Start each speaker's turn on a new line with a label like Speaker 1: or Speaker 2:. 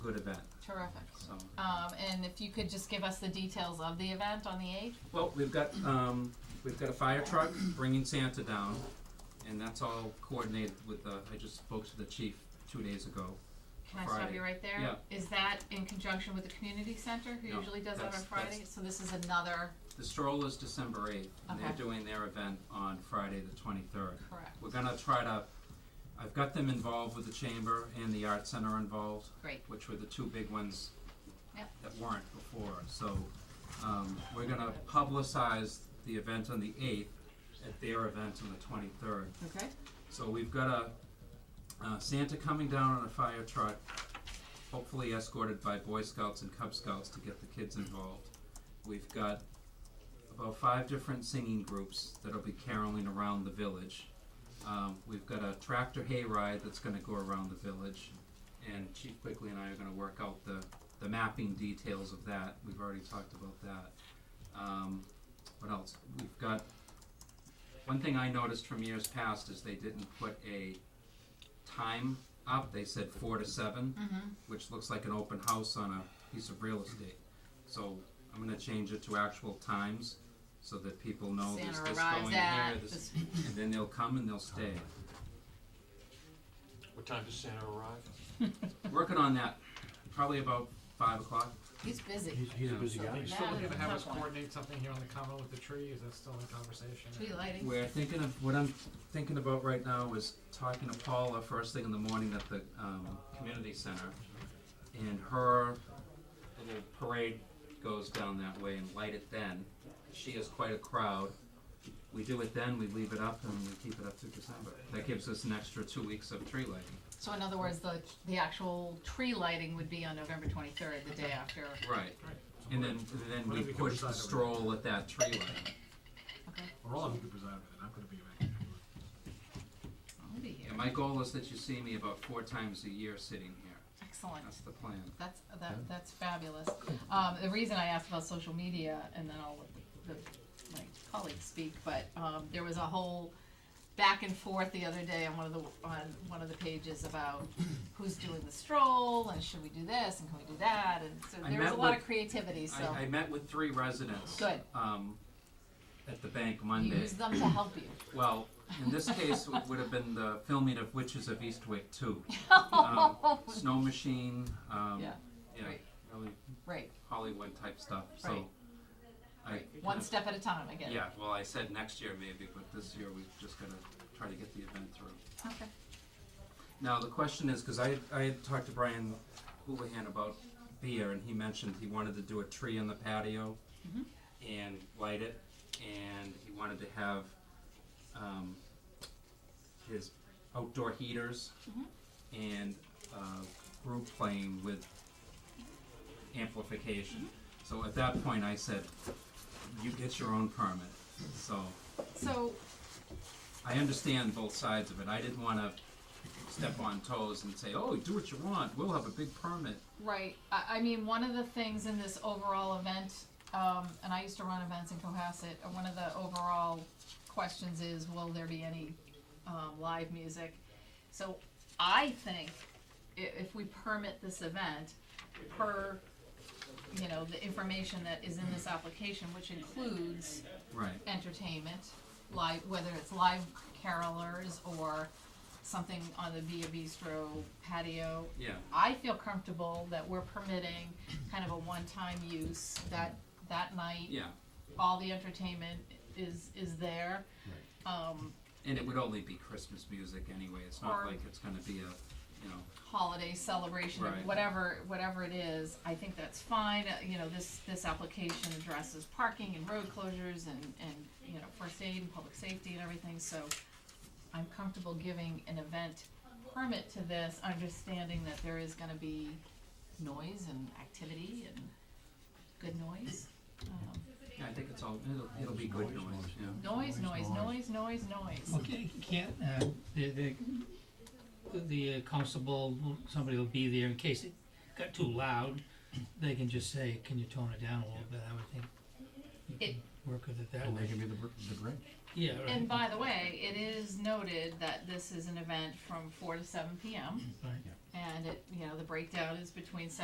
Speaker 1: good event,
Speaker 2: Terrific.
Speaker 1: so.
Speaker 2: Um, and if you could just give us the details of the event on the 8th?
Speaker 1: Well, we've got, um, we've got a fire truck bringing Santa down, and that's all coordinated with the, I just spoke to the chief two days ago.
Speaker 2: Can I stop
Speaker 1: Friday.
Speaker 2: you right there? Is
Speaker 1: Yeah.
Speaker 2: that in conjunction with the community center who
Speaker 1: No,
Speaker 2: usually does that on
Speaker 1: that's-
Speaker 2: Friday? So this is another,
Speaker 1: The stroll is December eighth, and they're
Speaker 2: Okay.
Speaker 1: doing their event on Friday the twenty-third.
Speaker 2: correct,
Speaker 1: We're gonna try to, I've got them involved with the chamber and the art center involved,
Speaker 2: great,
Speaker 1: which were the two big ones
Speaker 2: Yep.
Speaker 1: that weren't before, so, um, we're gonna publicize the event on the eighth at their event on the twenty-third.
Speaker 2: okay,
Speaker 1: So we've got a, uh, Santa coming down on a fire truck, hopefully escorted by Boy Scouts and Cub Scouts to get the kids involved. We've got about five different singing groups that'll be caroling around the village. Um, we've got a tractor hayride that's gonna go around the village, and Chief Quickly and I are gonna work out the, the mapping details of that, we've already talked about that. Um, what else? We've got one thing I noticed from years past is they didn't put a time up. They said four to 7
Speaker 2: Mm-hmm.
Speaker 1: which looks like an open house on a piece of real estate. So I'm gonna change it to actual times so that people know there's
Speaker 2: Santa
Speaker 1: this
Speaker 2: arrives
Speaker 1: going
Speaker 2: at
Speaker 1: here, this,
Speaker 2: this-
Speaker 1: and then they'll come and they'll stay.
Speaker 3: What time does Santa arrive?
Speaker 1: Working on that, probably about five o'clock.
Speaker 2: he's busy.
Speaker 4: He's, he's a
Speaker 1: Yeah.
Speaker 4: busy
Speaker 5: Are
Speaker 4: guy.
Speaker 5: you
Speaker 2: That
Speaker 5: still looking
Speaker 2: is
Speaker 5: to
Speaker 2: a
Speaker 5: have
Speaker 2: tough
Speaker 5: us
Speaker 2: one.
Speaker 5: coordinate something here on the common with the tree, is that still in conversation?
Speaker 2: Tree lighting.
Speaker 1: We're thinking of, what I'm thinking about right now is talking to Paula first thing in the morning at the, um, community center. And her little parade goes down that way and light it then. She has quite a crowd. We do it then, we leave it up and we keep it up through December. That gives us an extra two weeks of tree lighting.
Speaker 2: So in other words, the, the actual tree lighting would be on November 23rd, the day after.
Speaker 1: Right.
Speaker 5: Right. So
Speaker 1: And
Speaker 5: we're-
Speaker 1: then, then
Speaker 5: What
Speaker 1: we
Speaker 5: if we could
Speaker 1: push the
Speaker 5: decide over-
Speaker 1: stroll at that tree lighting.
Speaker 2: Okay,
Speaker 5: Or all of you could preside over it, I'm gonna be back.
Speaker 2: I'll be here.
Speaker 1: And my goal is that you see me about four times a year sitting here.
Speaker 2: Excellent.
Speaker 1: That's the plan.
Speaker 2: That's, that, that's fabulous. Um, the reason I asked about social media, and then I'll let the, the, my colleagues speak, but, um, there was a whole back and forth the other day on one of the, on one of the pages about who's doing the stroll, and should we do this, and can we do that, and so
Speaker 1: I
Speaker 2: there was a
Speaker 1: met
Speaker 2: lot
Speaker 1: with-
Speaker 2: of creativity, so.
Speaker 1: I, I met with three residents.
Speaker 2: Good.
Speaker 1: Um, at the bank Monday.
Speaker 2: Use them to help you.
Speaker 1: Well, in this case, it would have been the filming of Witches of Eastwick too. Um,
Speaker 2: Oh,
Speaker 1: Snow Machine, um,
Speaker 2: Yeah,
Speaker 1: yeah,
Speaker 2: right.
Speaker 1: really
Speaker 2: Right,
Speaker 1: Hollywood type stuff, so.
Speaker 2: Right.
Speaker 1: I,
Speaker 2: one step at a time, I guess.
Speaker 1: yeah, well, I said next year maybe, but this year we've just gotta try to get the event through.
Speaker 2: Okay,
Speaker 1: Now, the question is, because I, I had talked to Brian Houlihan about beer, and he mentioned he wanted to do a tree on the patio and light it, and he wanted to have um, his outdoor heaters and uh, group playing with amplification. So at that point, I said, you get your own permit. So
Speaker 2: so,
Speaker 1: I understand both sides of it. I didn't want to step on toes and say, "Oh, do what you want. We'll have a big permit."
Speaker 2: Right. I, I mean, one of the things in this overall event, um, and I used to run events in Cohasset, and one of the overall questions is, will there be any, um, live music? So I think i- if we permit this event per, you know, the information that is in this application, which includes
Speaker 1: Right.
Speaker 2: entertainment, live, whether it's live carolers or something on the Via Bistro patio,
Speaker 1: Yeah.
Speaker 2: I feel comfortable that we're permitting kind of a one-time use that, that night.
Speaker 1: Yeah.
Speaker 2: All the entertainment is, is there. Um,
Speaker 1: And it would only be Christmas music anyway. It's not
Speaker 2: Or-
Speaker 1: like it's going to be a, you know,
Speaker 2: holiday celebration, of
Speaker 1: Right.
Speaker 2: whatever, whatever it is, I think that's fine. Uh, You know, this, this application addresses parking and road closures and, and, you know, first aid and public safety and everything, so I'm comfortable giving an event permit to this, understanding that there is gonna be noise and activity and good noise. Um,
Speaker 1: yeah, I think it's all it'll, it'll be good noise. Yeah.
Speaker 2: Noise, noise, noise, noise, noise.
Speaker 6: Okay, can't, uh, the, the, the uh, constable, will- somebody will be there in case it got too loud. They can just say, can you tone it down a little bit, I would think. You
Speaker 2: It-
Speaker 6: can Work with it that
Speaker 4: And they
Speaker 6: way.
Speaker 4: can be the, br- the bridge.
Speaker 6: Yeah, right.
Speaker 2: And by the way, it is noted that this is an event from four to seven PM.
Speaker 6: Right.
Speaker 2: And it, you know, the breakdown is between seven